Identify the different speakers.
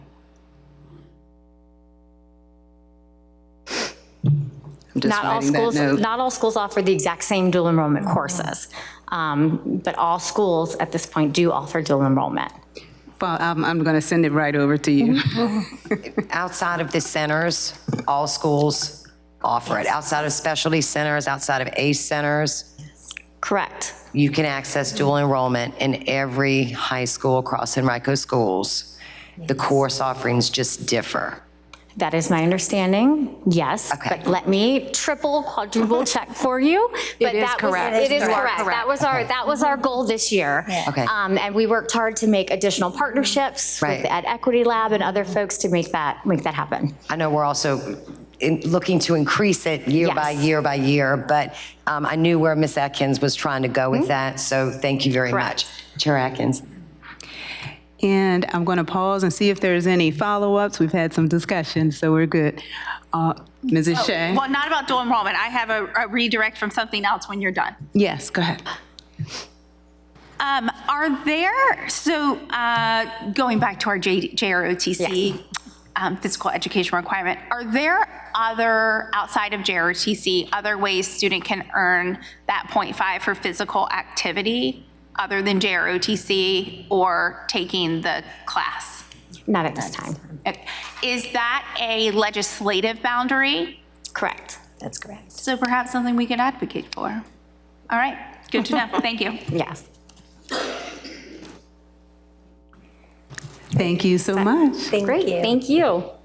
Speaker 1: I'm just
Speaker 2: Not all
Speaker 1: writing that
Speaker 2: schools,
Speaker 1: note.
Speaker 2: not all schools offer the exact same dual enrollment courses, Um, but all schools at this point do offer dual enrollment.
Speaker 1: Well, I'm, I'm going to send it right over to you.
Speaker 2: Mm-hmm.
Speaker 3: Outside of the centers, all schools offer it. Outside of specialty centers, outside of ACE centers,
Speaker 2: Correct.
Speaker 3: you can access dual enrollment in every high school across Enrico schools. The course offerings just differ.
Speaker 2: That is my understanding, yes.
Speaker 3: Okay.
Speaker 2: But let me triple, quadruple check for you. But
Speaker 4: is
Speaker 2: that was-
Speaker 4: correct.
Speaker 2: It is
Speaker 4: You are
Speaker 2: correct. That
Speaker 4: correct.
Speaker 2: was our, that was our goal this year.
Speaker 3: Okay.
Speaker 2: Um, And we worked hard to make additional partnerships with
Speaker 3: Right.
Speaker 2: the Ed Equity Lab and other folks to make that, make that happen.
Speaker 3: I know we're also in- looking to increase it year by
Speaker 2: Yes.
Speaker 3: year by year, but um, I knew where Ms. Atkins was trying to go with that, so thank you very much. Chair Atkins?
Speaker 1: And I'm going to pause and see if there's any follow-ups. We've had some discussion, so we're good. Uh,
Speaker 2: Oh,
Speaker 1: Mrs. Shea?
Speaker 5: Well, not about dual enrollment. I have a a redirect from something else when you're done.
Speaker 1: Yes, go ahead.
Speaker 5: Um, Are there, so uh, going back to our J- JROTC um, physical education requirement, are there other, outside of JROTC, other ways student can earn that .5 for physical activity other than JROTC or taking the class?
Speaker 2: Not at this time.
Speaker 5: Is that a legislative boundary?
Speaker 2: Correct.
Speaker 4: That's correct.
Speaker 5: So perhaps something we could advocate for. All right, good to know. Thank you.
Speaker 2: Yes.
Speaker 1: Thank you so much.
Speaker 4: Thank you.
Speaker 2: Great, thank you.